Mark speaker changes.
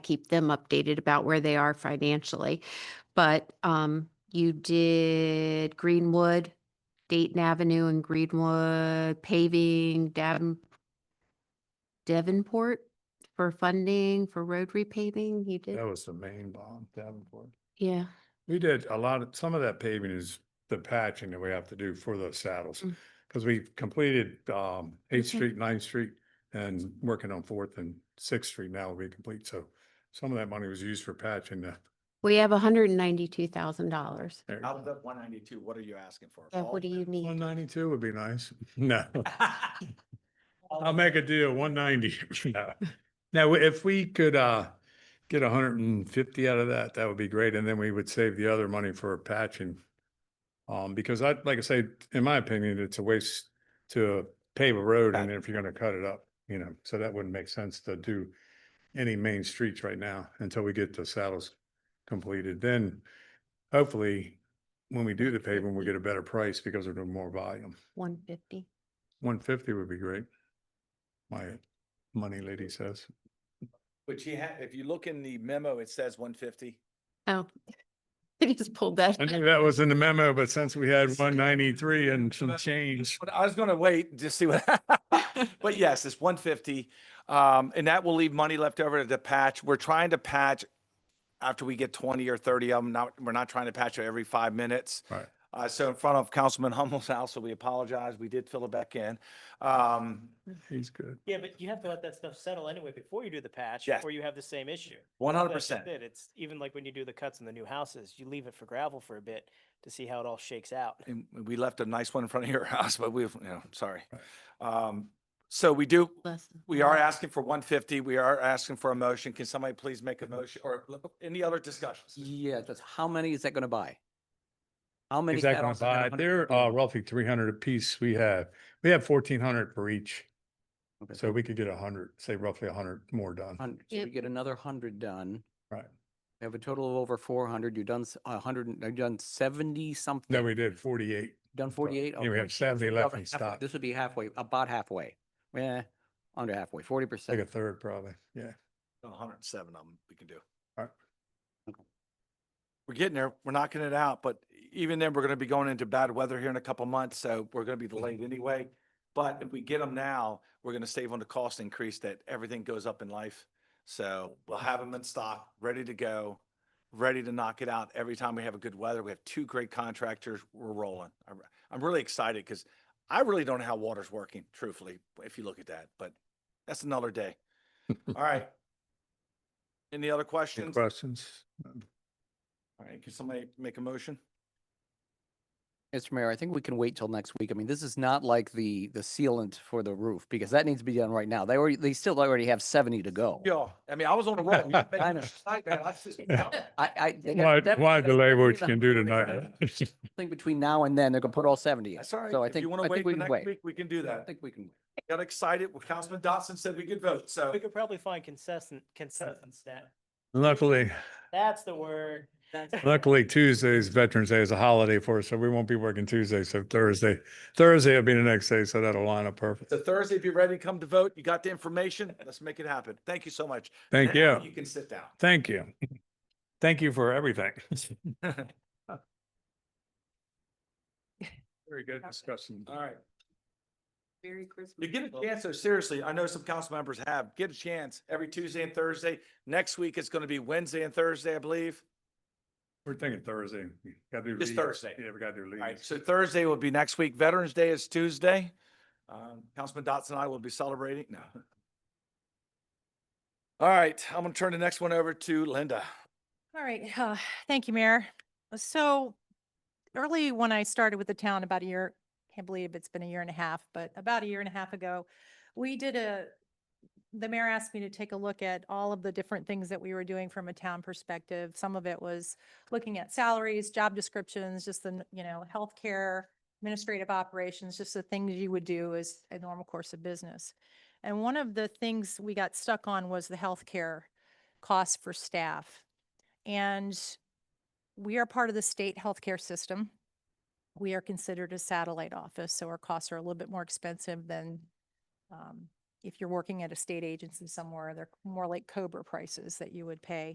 Speaker 1: keep them updated about where they are financially. But um, you did Greenwood, Dayton Avenue and Greenwood paving, Davin, Davenport for funding for road repaving. You did,
Speaker 2: Oh.
Speaker 3: That was the main bomb, Davenport.
Speaker 1: yeah.
Speaker 3: We did a lot of, some of that paving is the patching that we have to do for those saddles.
Speaker 1: Mm.
Speaker 3: Cause we completed, um, Eighth
Speaker 1: Okay.
Speaker 3: Street, Ninth Street and working on Fourth and Sixth Street now will be complete. So some of that money was used for patching the.
Speaker 1: We have hundred and ninety-two thousand dollars.
Speaker 2: Out of that one ninety-two, what are you asking for?
Speaker 1: Yeah, what do you
Speaker 3: One
Speaker 1: need?
Speaker 3: ninety-two would be nice. No,
Speaker 2: need?
Speaker 3: I'll make a deal, one ninety. Now, if we could, uh, get hundred and fifty out of that, that would be great. And then we would save the other money for patching. Um, because I, like I say, in my opinion, it's a waste to pave a road and if you're gonna cut it up, you know, so that wouldn't make sense to do any main streets right now until we get the saddles completed. Then hopefully, when we do the paving, we get a better price because we're doing more volume.
Speaker 1: One fifty.
Speaker 3: One fifty would be great. My money lady says.
Speaker 2: But you have, if you look in the memo, it says one fifty.
Speaker 1: Oh, I just pulled that.
Speaker 3: I knew that was in the memo, but since we had one ninety-three and some change,
Speaker 2: But I was gonna wait and just see what, but yes, it's one fifty. Um, and that will leave money left over to patch. We're trying to patch after we get twenty or thirty of them. Not, we're not trying to patch it every five minutes.
Speaker 3: Right.
Speaker 2: Uh, so in front of Councilman Hummel's house, so we apologize. We did fill it back in. Um,
Speaker 3: he's good.
Speaker 4: Yeah, but you have to let that stuff settle anyway before you do the patch,
Speaker 2: Yes.
Speaker 4: before you have the same issue.
Speaker 2: one hundred
Speaker 4: That's just
Speaker 2: percent.
Speaker 4: it. It's even like when you do the cuts in the new houses, you leave it for gravel for a bit to see how it all shakes out.
Speaker 2: And we left a nice one in front of your house, but we've, you know, sorry.
Speaker 3: Right.
Speaker 2: Um, so we do,
Speaker 1: Less-
Speaker 2: We are asking for one fifty. We are asking for a motion. Can somebody please make a motion or look- any other discussions?
Speaker 5: Yeah, that's, how many is that gonna buy? How many?
Speaker 3: Is that gonna
Speaker 5: saddles are
Speaker 3: buy,
Speaker 5: gonna
Speaker 3: they're,
Speaker 5: put
Speaker 3: uh,
Speaker 5: in?
Speaker 3: roughly three hundred apiece we have. We have fourteen hundred for each,
Speaker 5: Okay,
Speaker 3: so we could get a hundred, say roughly a hundred more done.
Speaker 5: 100. So
Speaker 1: Yep.
Speaker 5: we get another hundred done.
Speaker 3: Right.
Speaker 5: We have a total of over four hundred. You've done a hundred, and- you've done seventy something.
Speaker 3: Then we did forty-eight.
Speaker 5: Done forty-eight.
Speaker 3: Yeah, we have seventy left in stock,
Speaker 5: This would be halfway, about halfway. Yeah, under halfway, forty
Speaker 3: like a
Speaker 5: percent.
Speaker 3: third probably, yeah.
Speaker 2: hundred and seven of them we can do.
Speaker 3: All right.
Speaker 5: Okay.
Speaker 2: We're getting there. We're knocking it out, but even then, we're gonna be going into bad weather here in a couple months, so we're gonna be delayed anyway. But if we get them now, we're gonna save on the cost increase that everything goes up in life. So we'll have them in stock, ready to go, ready to knock it out. Every time we have a good weather, we have two great contractors. We're rolling. I'm- I'm really excited because I really don't know how water's working, truthfully, if you look at that, but that's another day. All right. Any other
Speaker 3: Any
Speaker 2: questions? All
Speaker 3: questions?
Speaker 2: right, can somebody make a motion?
Speaker 5: Mr. Mayor, I think we can wait till next week. I mean, this is not like the, the sealant for the roof because that needs to be done right now. They already, they still already have seventy to go.
Speaker 2: Yeah, I mean, I was on a roll. You've been-
Speaker 5: I know.
Speaker 2: Like, man, I just- All
Speaker 5: I, I. that-
Speaker 3: Why,
Speaker 5: that-
Speaker 3: why
Speaker 5: that's
Speaker 3: delay
Speaker 5: probably
Speaker 3: what
Speaker 5: the
Speaker 3: you can do
Speaker 5: hundred
Speaker 3: tonight?
Speaker 5: percent. think between now and then, they're gonna put all seventy in.
Speaker 2: right.
Speaker 5: So I
Speaker 2: If you
Speaker 5: think,
Speaker 2: want
Speaker 5: I
Speaker 2: to wait
Speaker 5: think we
Speaker 2: for
Speaker 5: can
Speaker 2: next
Speaker 5: wait.
Speaker 2: week, we can do
Speaker 5: I
Speaker 2: that.
Speaker 5: think we can.
Speaker 2: Got excited. Well, Councilman Dotson said we could vote, so.
Speaker 4: We could probably find consistent, consistent stat.
Speaker 3: Luckily,
Speaker 4: That's the word.
Speaker 3: Luckily, Tuesday's Veterans Day is a holiday for us, so we won't be working Tuesday. So Thursday, Thursday will be the next day, so that'll line up perfect.
Speaker 2: So Thursday, if you're ready to come to vote, you got the information, let's make it happen. Thank you so much.
Speaker 3: Thank
Speaker 2: Now
Speaker 3: you.
Speaker 2: You can sit down.
Speaker 3: Thank you. Thank you for everything. Very good discussion.
Speaker 2: All right.
Speaker 1: Merry Christmas.
Speaker 2: You get a chance, though, seriously, I know some council members have, get a chance every Tuesday and Thursday. Next week, it's going to be Wednesday and Thursday, I believe.
Speaker 3: We're thinking Thursday. We gotta do
Speaker 2: It's
Speaker 3: leaves.
Speaker 2: Thursday.
Speaker 3: Yeah, we gotta do
Speaker 2: All right,
Speaker 3: leaves.
Speaker 2: so Thursday will be next week. Veterans Day is Tuesday. Um, Councilman Dotson and I will be celebrating. No. All right, I'm going to turn the next one over to Linda.
Speaker 6: All right, uh, thank you, Mayor. So early when I started with the town about a year, can't believe it's been a year and a half, but about a year and a half ago, we did a, the mayor asked me to take a look at all of the different things that we were doing from a town perspective. Some of it was looking at salaries, job descriptions, just the, n- you know, healthcare, administrative operations, just the things you would do as a normal course of business. And one of the things we got stuck on was the healthcare costs for staff. And we are part of the state healthcare system. We are considered a satellite office, so our costs are a little bit more expensive than um, if you're working at a state agency somewhere, they're more like Cobra prices that you would pay